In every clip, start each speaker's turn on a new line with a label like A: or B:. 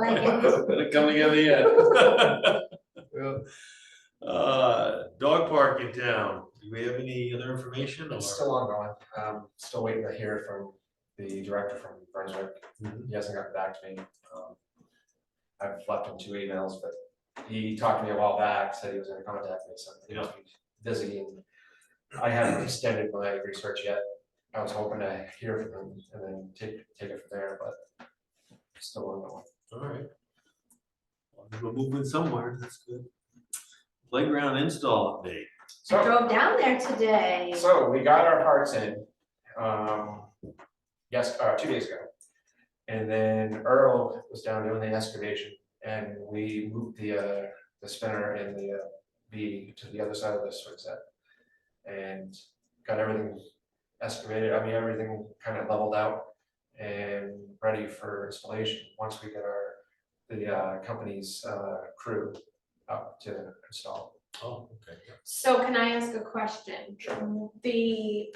A: They're coming in the
B: Yeah.
A: end. Uh, dog park in town, do we have any other information or?
B: It's still ongoing, um, still waiting to hear from the director from Brunswick,
A: Mhm.
B: he hasn't gotten back to me, um. I've left him two emails, but he talked to me a while back, said he was gonna contact me, so he must be busy and. I haven't extended my research yet, I was hoping to hear from him and then take, take it from there, but. Still ongoing.
A: Alright. Well, We're moving somewhere, that's good. Playground install update.
B: So-
C: I drove down there today.
B: So we got our parts in, um, yes, uh, two days ago. And then Earl was down doing the excavation and we moved the, uh, the spinner and the, uh, B to the other side of the swing set. And got everything excavated, I mean, everything kind of leveled out and ready for installation. Once we get our, the, uh, company's, uh, crew up to install.
A: Oh, okay.
C: So can I ask a question? The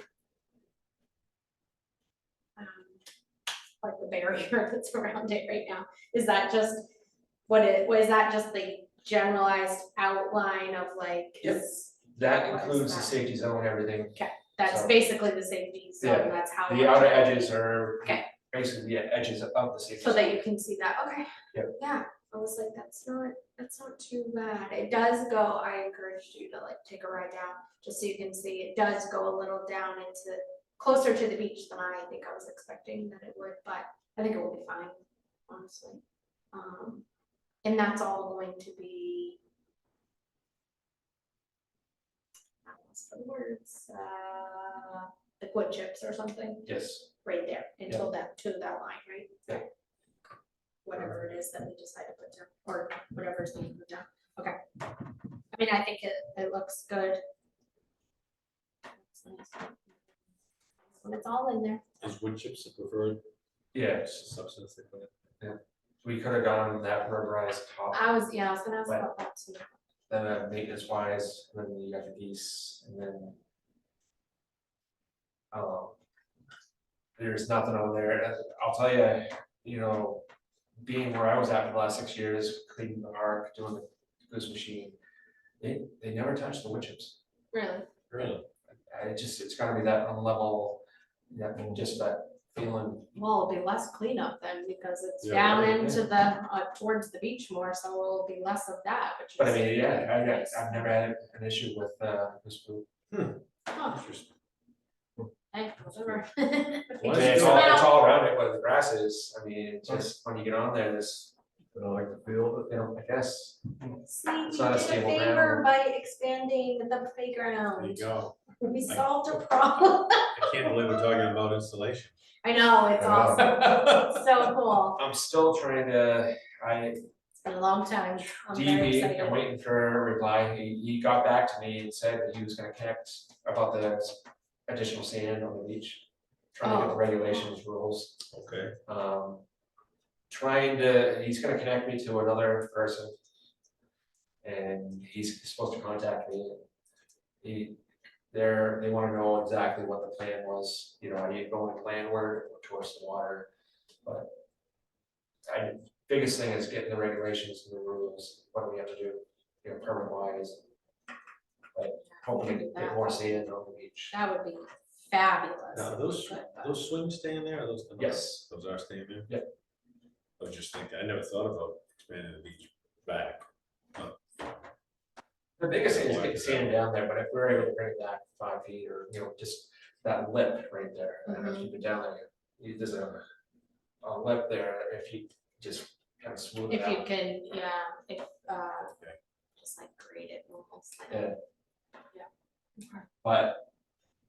C: um, like the barrier that's around it right now, is that just what it, was that just the generalized outline of like?
B: Yep.
C: is-
B: That
C: What is
B: includes the
C: that?
B: safety zone, everything
C: That's
B: So-
C: basically the safety
B: Yeah,
C: zone, that's how.
B: The
C: much-
B: outer edges are
C: Okay.
B: basically the edges of the safety.
C: So that
B: zone.
C: you can see that, okay.
B: Yep.
C: Yeah, I was like, that's not, that's not too bad. It does go, I encouraged you to like take a ride down, just so you can see, it does go a little down into, closer to the beach than I think I was expecting that it would, but I think it will be fine, honestly. Um, and that's all going to be. I lost the words, uh, like wood chips or something
B: Yes,
C: right there until that, to that line, right?
B: Yeah.
C: Whatever it is that we decide to put down, or whatever is being put down, okay. I mean, I think it, it looks good. When it's all in there,
A: Is wood chips the preferred
B: yes,
A: substance they put in?
B: we could have gone that rubberized top,
C: I was, yeah, I was gonna ask about that too.
B: then uh, maintenance wise, then you got the piece, and then. Um. There's nothing on there, and I'll tell you, you know, being where I was at for the last six years, cleaning the arc, doing the goose machine. They, they never touched the wood chips.
C: Really,
A: Really?
B: I just, it's gotta be that unlevel, that, just that feeling,
C: well, it'll be less cleanup then, because it's
A: Yeah,
C: down
B: right, yeah.
C: into the, uh, towards the beach more, so it'll be less of that, which is.
B: But I mean, yeah, I,
C: nice.
B: I- I've never had an issue with, uh, this food.
C: Huh,
A: Interesting.
C: hey, whatever.
A: Why
B: And
A: is it
B: It's
A: doing-
B: all, it's all around it, where the grass is, I mean, it's just when you get on there, this,
D: I don't like the feel,
B: you know, I guess,
C: See, we
B: It's
C: did
B: not a
C: a
B: stable
C: favor
B: ground.
C: by expanding the
A: There you
C: playground.
A: go.
C: We
A: I-
C: solved a problem.
A: I can't believe we're talking about installation.
C: I know, it's
B: I know.
C: awesome. It's So cool.
B: I'm still trying to, I,
C: It's been a long time. I'm very
B: DB, I'm
C: excited.
B: waiting for a reply, he, he got back to me and said that he was gonna connect about the additional sand on the beach. Trying to get the
C: Oh.
B: regulations, rules,
A: Okay.
B: um, trying to, he's gonna connect me to another person. And he's supposed to contact me. He, they're, they wanna know exactly what the plan was, you know, I need to go in landward or towards the water, but. I, biggest thing is getting the regulations and the rules, what do we have to do, you know, permit wise. Like, hopefully get more sand on the beach,
C: That would be fabulous.
A: Now,
C: if
A: those-
C: we could, but- uh,
A: Those swings staying there, or those? come out?
B: Yes.
A: Those are staying there?
B: Yeah.
A: I was just thinking, I never thought about expanding the beach back.
B: the biggest thing is getting sand down there, but if we're able to bring it back five feet or, you know, just. that lip right there, and if you go down there, you, there's a, a lip there, if you just kind of smooth it
C: If you
B: out.
C: can, yeah, if, uh,
A: Okay.
C: just like grade it almost like.
B: Yeah.
C: Yeah. Okay.
B: But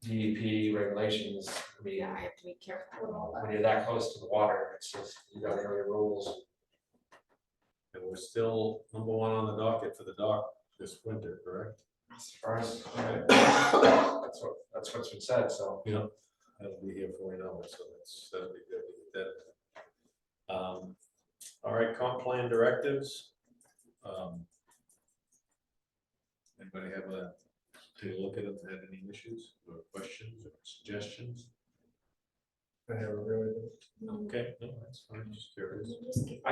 B: DEP regulations, I mean,
C: Yeah, I have to be careful. with all
B: when
C: that.
B: you're that close to the water, it's just, you got area rules.
A: And we're still number one on the docket for the dock this winter, correct?
B: As far as, that's what, that's what's been said, so,
A: Yeah. That'll be here for an hour, so that's, that'll be good to get that. Um, all right, comp plan directives. Um, Anybody have a, take a look at them, have any issues or questions or suggestions?
D: I never really did.
A: Okay, no, that's fine, just curious.
C: Let me just get